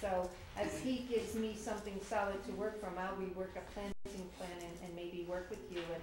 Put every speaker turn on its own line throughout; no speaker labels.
So as he gives me something solid to work from, I'll rework a planting plan and, and maybe work with you and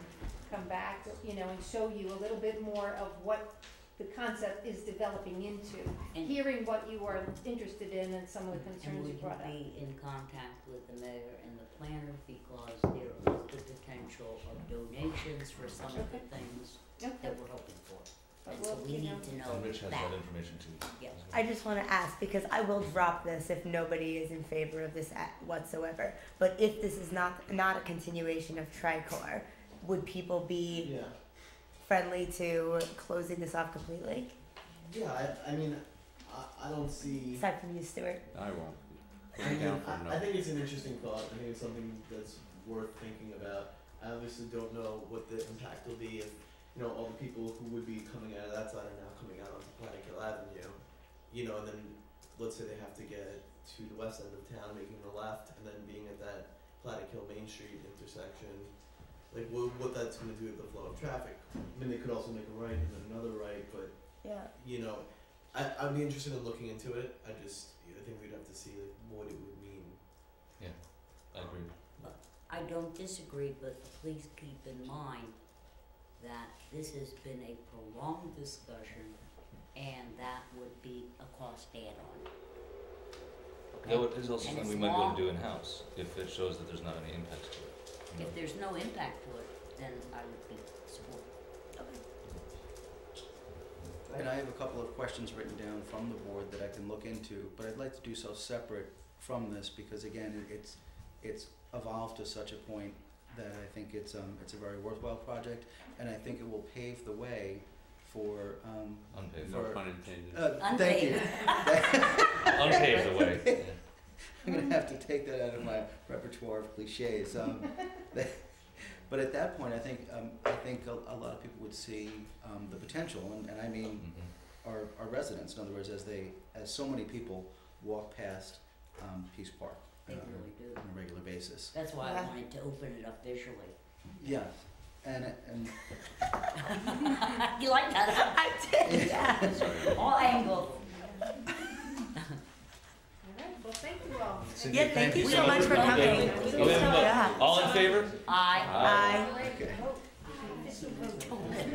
come back, you know, and show you a little bit more of what the concept is developing into,
And-
hearing what you are interested in and some of the
And
concerns
we
you
can
brought up.
be in contact with the mayor and the planner because there is the potential of donations for some of the things
Okay,
that we're hoping for.
but
And so
we'll,
we
you know,
need to know
And Rich has
that.
that information too.
Yeah.
I just want to ask because I will drop this if nobody is in favor of this at whatsoever. But if this is not not a continuation of Tricor, would people be
Yeah,
friendly to closing this off completely?
yeah. I, I mean, I, I don't see.
Aside from you, Stuart.
I won't. Put
I,
it
mean,
down for a
I, I
no.
think it's an interesting thought. I think it's something that's worth thinking about. I obviously don't know what the impact will be if you know all the people who would be coming out of that side are now coming out onto Platic Hill Avenue. You know, and then let's say they have to get to the west end of town, making a left, and then being at that Platic Hill Main Street intersection. Like what what that's going to do with the flow of traffic. I mean, they could also make a right and then another right, but
Yeah.
you know, I, I'd be interested in looking into it. I just, I think we'd have to see like what it would mean.
I agree.
I don't disagree, but please keep in mind that this has been a prolonged discussion and that would be a cost add-on. Okay?
Though it is also
And
something we
it's
might be able
long.
to do in-house, if it shows that there's not any impacts to it. you know.
If there's no impact to it, then I would be supportive.
And I have a couple of questions written down from the board that I can look into, but I'd like to do so separate from this because again, it- it's, it's evolved to such a point that I think it's, um, it's a very worthwhile project and I think it will pave the way for, um,
Unpaved,
No
for-
pun intended.
uh, thank you.
unpaved the way. Yeah.
I'm gonna have to take that out of my repertoire of cliches. Um, that- but at that point, I think, um, I think a, a lot of people would see, um, the potential and, and I mean,
Mhm.
our, our residents. In other words, as they, as so many people walk past um, Peace Park
They
uh,
really do.
on a regular basis.
That's why I
Yeah.
wanted to open it up visually.
Yes, and and
you like that?
I did. Yeah.
huh? All angles.
all right, well, thank you all.
Cindy,
yeah. Thank you
you
so
so
much
much
for
for coming.
coming. Thank you
Oh, we
so
have a vote.
much.
All in favor?
I.
Bye.
okay,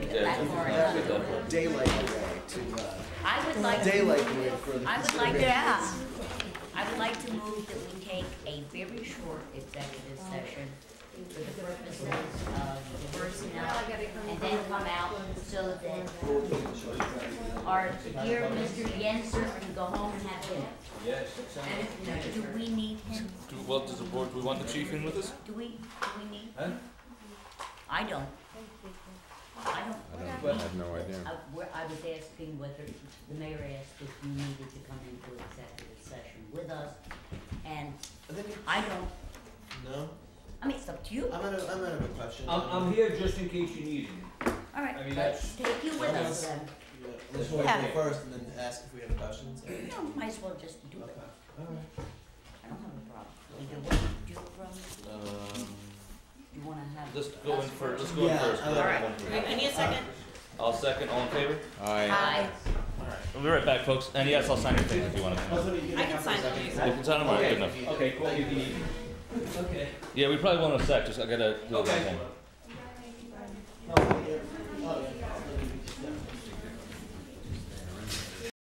Yeah,
That part.
that's good though.
daylight away to uh,
I would like.
daylight away for the.
I would like.
Yeah.
I would like to move that we take a very short executive session for the purposes of
Now
personnel
I gotta come.
and then come out so that our dear Mr. Yenser can go home and have dinner. Yes. Do we need him?
Do, well, does the board, do we want the chief in with us?
Do we, do we need?
Huh?
I don't. I don't.
I don't, I have no idea.
I, where I was asking whether, the mayor asked if you needed to come into executive session with us, and
I think it,
I don't,
no.
I mean, it's up to you,
I'm out of I'm out of a question.
I'm, I'm here just in case you need me.
alright,
I mean,
let's take you with us then.
Yeah, let's go
Yeah.
first and then ask if we have questions. Okay.
No, might as well just do
All
it,
right.
I don't have a problem, either way, do you have a problem,
Um,
you wanna have.
let's go in
us
first, let's go in
Yeah.
first.
I
Alright.
like that one.
I need a second. I'll second, all in favor?
I,
Aye.
We'll be right back, folks, and yes, I'll sign your thing if you wanna.
That's what you
I can sign on these.
If it's on, I'm good enough.
Okay, cool, you need. Okay.
Yeah, we probably won't in a sec, just I gotta do the
Okay.
Oh, Okay.
thing.